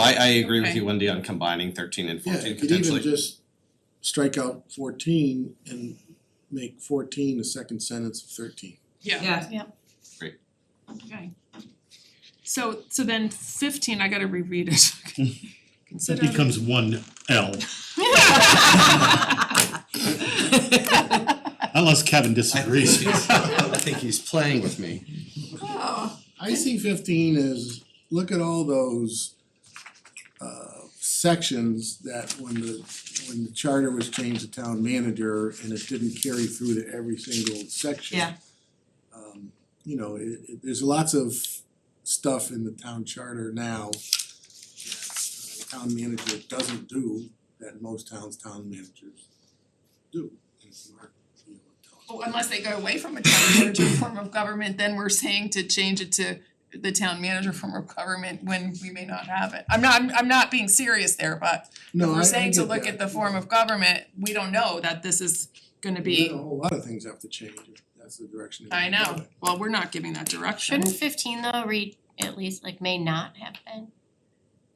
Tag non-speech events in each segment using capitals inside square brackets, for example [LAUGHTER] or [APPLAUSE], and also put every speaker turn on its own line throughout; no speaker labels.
I agree with
Okay.
you, Wendy, on combining thirteen and
Yeah,
fourteen
you could
[LAUGHS]
even
potentially.
just strike out fourteen and make fourteen the second sentence of thirteen.
yeah,
Yeah,
okay. So so then fifteen, I gotta reread it.
That
Consider.
becomes one L, unless Kevin disagrees.
I think he's playing with me.
Oh,
I see fifteen as, look at all those uh sections that when the when the charter was changed to town manager and it didn't carry through to every single section.
Yeah.
Um you know, it it there's lots of stuff in the town charter now that uh, town manager doesn't do that most towns town managers do. And it's not, you know, town-
Well, Oh, unless they go away from a town manager form of government, then we're saying to change it to the town manager form of government when we may not have it. I'm not, I'm I'm not being serious there, but
No, I
we're
I
saying to
get
look at
that.
the form of government, we don't know that this is gonna
Well, then
be,
A whole lot of things have to change if that's the direction.
I know, well, we're not giving that direction.
Shouldn't fifteen though read at least like may not have been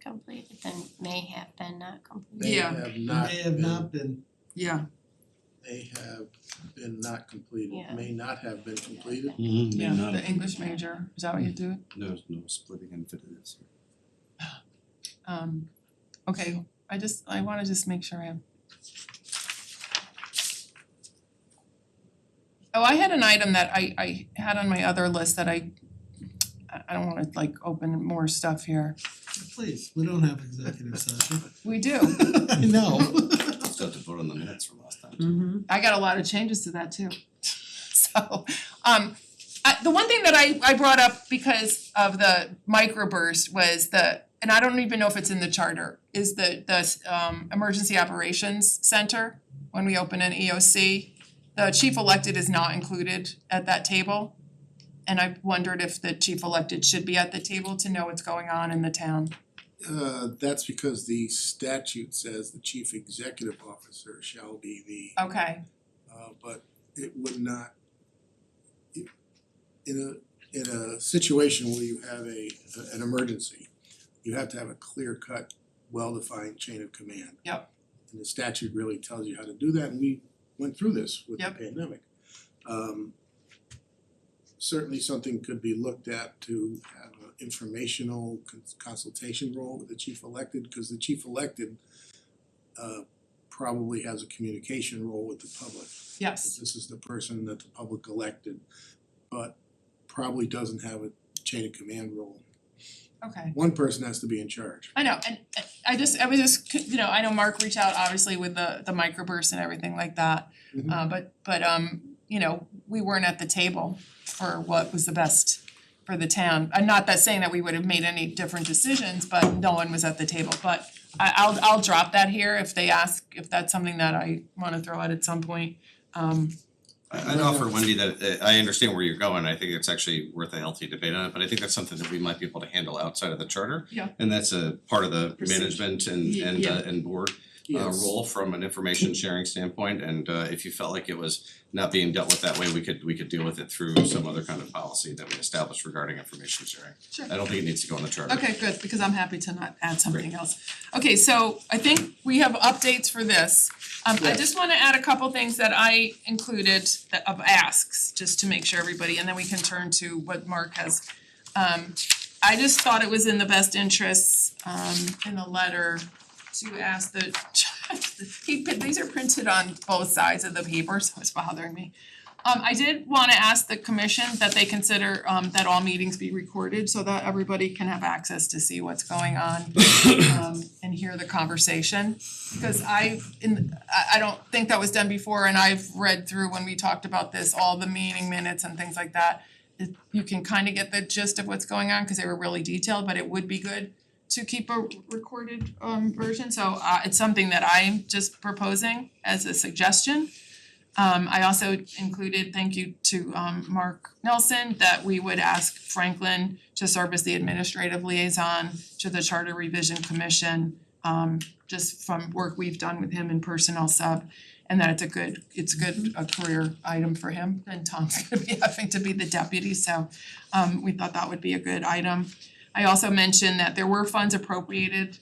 completed, then may have been not completed?
They
Yeah.
have not
May have
been,
not been,
Yeah,
they have been not completed,
Yeah.
may not have been completed.
Mhm, may
yeah,
not
the English major, is that what you do?
No, no splitting infinities.
Um, okay, I just, I wanna just make sure I have. Oh, I had an item that I I had on my other list that I I I don't wanna like open more stuff here.
please, we don't have executive session.
We do,
I know.
Still have to vote on the minutes from last time.
mhm.
I got a lot of changes to that too. [LAUGHS] So, um, I the one thing that I I brought up because of the microburst was the, and I don't even know if it's in the charter, is the the um emergency operations center when we open an EOC. The chief elected is not included at that table. And I wondered if the chief elected should be at the table to know what's going on in the town.
Uh that's because the statute says the chief executive officer shall be the
Okay,
uh but it would not it- in a in a situation where you have a an emergency, you have to have a clear cut, well defined chain of command.
Yep.
And the statute really tells you how to do that and we went through this with the
Yep.
pandemic. Um certainly something could be looked at to have an informational cons- consultation role with the chief elected, because the chief elected uh probably has a communication role with the public.
yes.
This is the person that the public elected, but probably doesn't have a chain of command role.
Okay.
One person has to be in charge.
I know, and and I just, I was just, c- you know, I know Mark reached out obviously with the the microburst and everything like that.
Mhm.
Uh but but um, you know, we weren't at the table for what was the best for the town. I'm not that saying that we would have made any different decisions, but no one was at the table, but I I'll I'll drop that here if they ask, if that's something that I wanna throw out at some point. Um
I I'd offer Wendy that uh, I understand where you're going, I think it's actually worth a healthy debate on it, but I think that's something that we might be able to handle outside of the charter.
Yeah.
And that's a part of the
Procedure.
management and
Ye-
and
yeah.
uh and board uh
Yes.
role from an information sharing standpoint, and uh if you felt like it was not being dealt with that way, we could we could deal with it through some other kind of policy that we established regarding information sharing.
Sure.
I don't think it needs to go in the charter.
Okay, good, because I'm happy to not add something else. Okay, so I think we have updates for this. Um I
Yes.
just wanna add a couple things that I included that of asks, just to make sure everybody, and then we can turn to what Mark has. Um I just thought it was in the best interests um in the letter to ask the [LAUGHS] he put, these are printed on both sides of the paper, so it's bothering me. Um I did wanna ask the commission that they consider um that all meetings be recorded so that everybody can have access to see what's going on um and hear the conversation. Because I in I I don't think that was done before and I've read through when we talked about this, all the meeting minutes and things like that. It you can kind of get the gist of what's going on because they were really detailed, but it would be good to keep a recorded um version, so uh it's something that I'm just proposing as a suggestion. Um I also included, thank you to um Mark Nelson, that we would ask Franklin to serve as the administrative liaison to the Charter Revision Commission. Um just from work we've done with him in personnel sub and that it's a good, it's good a career item for him. And Tom's [LAUGHS] gonna be having to be the deputy, so um we thought that would be a good item. I also mentioned that there were funds appropriated